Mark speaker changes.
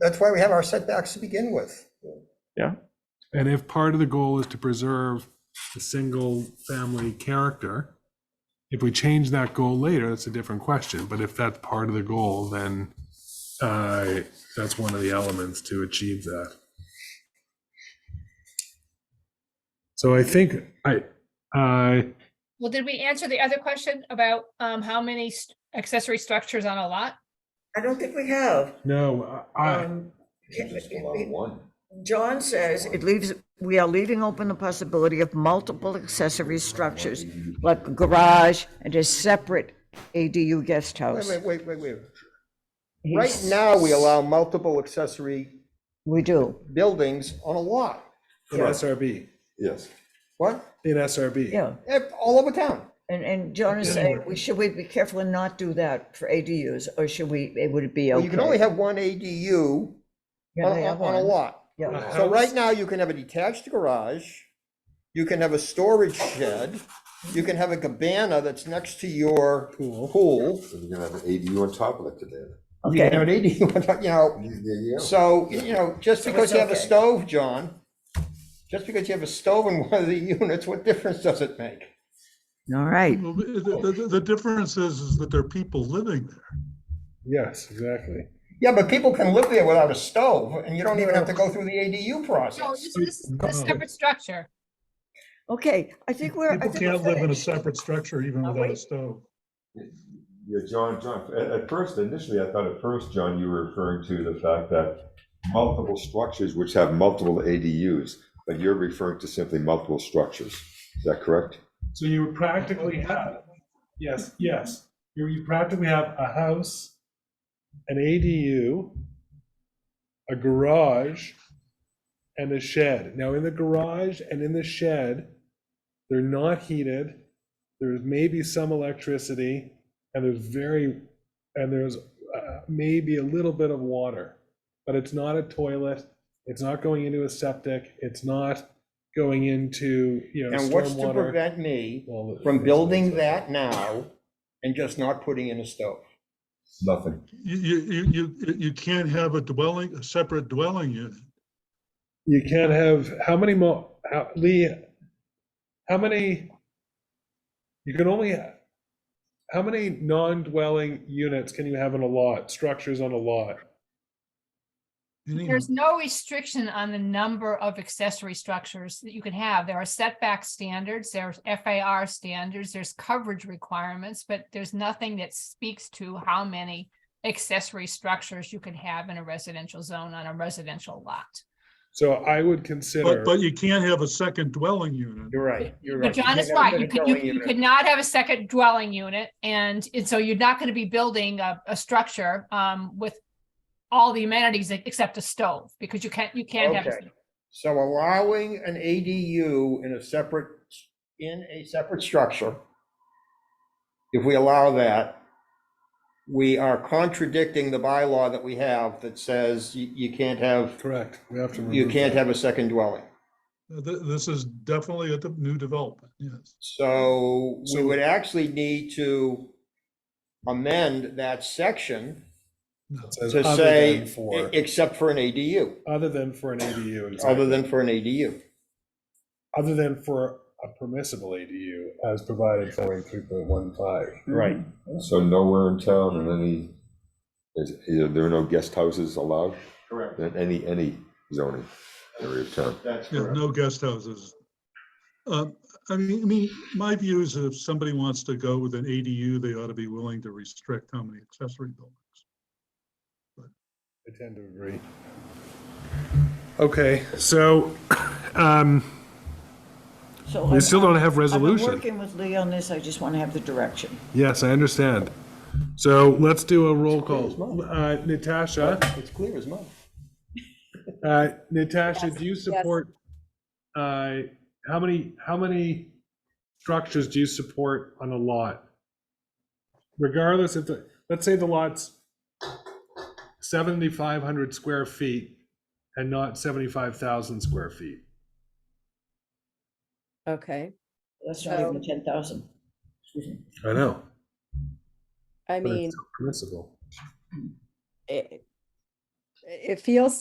Speaker 1: That's why we have our setbacks to begin with.
Speaker 2: Yeah.
Speaker 3: And if part of the goal is to preserve the single-family character, if we change that goal later, that's a different question. But if that's part of the goal, then uh, that's one of the elements to achieve that. So I think I, uh, I,
Speaker 4: Well, did we answer the other question about um how many st- accessory structures on a lot?
Speaker 5: I don't think we have.
Speaker 3: no, I,
Speaker 5: Um,
Speaker 6: Just allow one.
Speaker 5: John says it leaves, we are leaving open the possibility of multiple accessory structures, like a garage and a separate ADU guest
Speaker 1: Wait,
Speaker 5: house.
Speaker 1: wait, wait, wait, wait.
Speaker 5: He
Speaker 1: Right
Speaker 5: s-
Speaker 1: now, we allow multiple accessory
Speaker 5: We do.
Speaker 1: buildings on a lot.
Speaker 3: in SRB,
Speaker 6: Yes.
Speaker 1: What?
Speaker 3: in SRB.
Speaker 5: Yeah,
Speaker 1: Eh, All over town.
Speaker 5: and, and John is saying, we- should we be careful and not do that for ADUs, or should we, it would be
Speaker 1: Well,
Speaker 5: okay?
Speaker 1: You can only have one ADU
Speaker 5: Yeah,
Speaker 1: on
Speaker 5: they
Speaker 1: a-
Speaker 5: have
Speaker 1: on a
Speaker 5: one.
Speaker 1: lot.
Speaker 5: Yeah.
Speaker 3: Uh,
Speaker 1: So right now, you can have a detached garage, you can have a storage shed, you can have a cabana that's next to your pool.
Speaker 6: So you're gonna have an ADU on top of it today.
Speaker 1: You can have an ADU, you know,
Speaker 6: There you go.
Speaker 1: so, you know, just because you have a
Speaker 5: okay.
Speaker 1: stove, John, just because you have a stove in one of the units, what difference does it make?
Speaker 5: All
Speaker 1: Mm-hmm.
Speaker 5: right,
Speaker 7: Well, The, the- the- the difference is, is that there are people living there.
Speaker 3: Yes, exactly.
Speaker 1: Yeah, but people can live there without a stove, and you don't even have to go through the ADU
Speaker 4: No,
Speaker 1: process.
Speaker 4: this this is a separate structure.
Speaker 5: okay, I think we're. I
Speaker 7: People
Speaker 5: think we're
Speaker 7: can't live in a
Speaker 5: finished.
Speaker 7: separate structure even
Speaker 5: Are
Speaker 7: without
Speaker 5: we?
Speaker 7: a stove.
Speaker 6: Yeah, John, John, at, at first, initially, I thought at first, John, you were referring to the fact that multiple structures which have multiple ADUs, but you're referring to simply multiple structures. Is that correct?
Speaker 3: So you would practically have, yes, yes, you you practically have a house, an ADU, a garage, and a shed. Now, in the garage and in the shed, they're not heated, there's maybe some electricity, and there's very, and there's uh, maybe a little bit of water. But it's not a toilet, it's not going into a septic, it's not going into, you know, stormwater.
Speaker 1: And what's to prevent me
Speaker 3: Well, the-
Speaker 1: from building that now and just not putting in a stove?
Speaker 6: Nothing.
Speaker 7: You, you, you, you- you can't have a dwelling, a separate dwelling unit.
Speaker 3: You can't have, how many more, how, Lee, how many? You can only, ha- how many non-dwelling units can you have on a lot, structures on a lot?
Speaker 7: Anyhow,
Speaker 4: There's no restriction on the number of accessory structures that you can have. There are setback standards, there's FAR standards, there's coverage requirements, but there's nothing that speaks to how many accessory structures you can have in a residential zone on a residential lot.
Speaker 3: So I would consider,
Speaker 7: But, but you can't have a second dwelling unit.
Speaker 1: You're right, you're
Speaker 4: But
Speaker 1: right.
Speaker 4: John is right. You could, you- you could not have a second dwelling unit and, and so you're not gonna be building a, a structure, um, with all the amenities e- except a stove, because you can't, you can't have. a
Speaker 1: Okay. So allowing an ADU in a separate, in a separate structure, if we allow that, we are contradicting the bylaw that we have that says you, you can't have,
Speaker 3: correct, we have to.
Speaker 1: you
Speaker 3: remove
Speaker 1: can't
Speaker 3: that.
Speaker 1: have a second dwelling.
Speaker 7: Uh, th- This is definitely a de- new development, yes.
Speaker 1: So we
Speaker 3: So-
Speaker 1: would actually need to amend that section
Speaker 7: No.
Speaker 3: It says
Speaker 1: to
Speaker 3: other
Speaker 1: say,
Speaker 3: than for-
Speaker 1: e- except for an ADU,
Speaker 3: Other than for an ADU,
Speaker 1: other
Speaker 3: exactly,
Speaker 1: than for an ADU.
Speaker 3: other than for a permissible ADU as provided for in three point one five.
Speaker 1: Right.
Speaker 6: So nowhere in town in any, is, is- there are no guest houses allowed
Speaker 1: Correct.
Speaker 6: in any, any zoning area of town.
Speaker 1: That's
Speaker 7: Yeah, no guest houses. Uh, I mean, I mean, my view is that if somebody wants to go with an ADU, they ought to be willing to restrict how many accessory buildings.
Speaker 3: I tend to agree. Okay, so, um,
Speaker 5: So
Speaker 3: we
Speaker 5: I'm-
Speaker 3: still don't have
Speaker 5: I've been
Speaker 3: resolution.
Speaker 5: Working with Lee on this, I just want to have the direction.
Speaker 3: Yes, I understand. So let's do a roll call. Uh, Natasha,
Speaker 1: It's clear as mud.
Speaker 3: uh, Natasha, do you support, uh, how many, how many structures do you support on a lot? Regardless if the, let's say the lot's 7,500 square feet and not 75,000 square feet.
Speaker 8: Okay,
Speaker 5: That's not even 10,000.
Speaker 3: I know.
Speaker 8: I mean,
Speaker 3: Permissible.
Speaker 8: it, it feels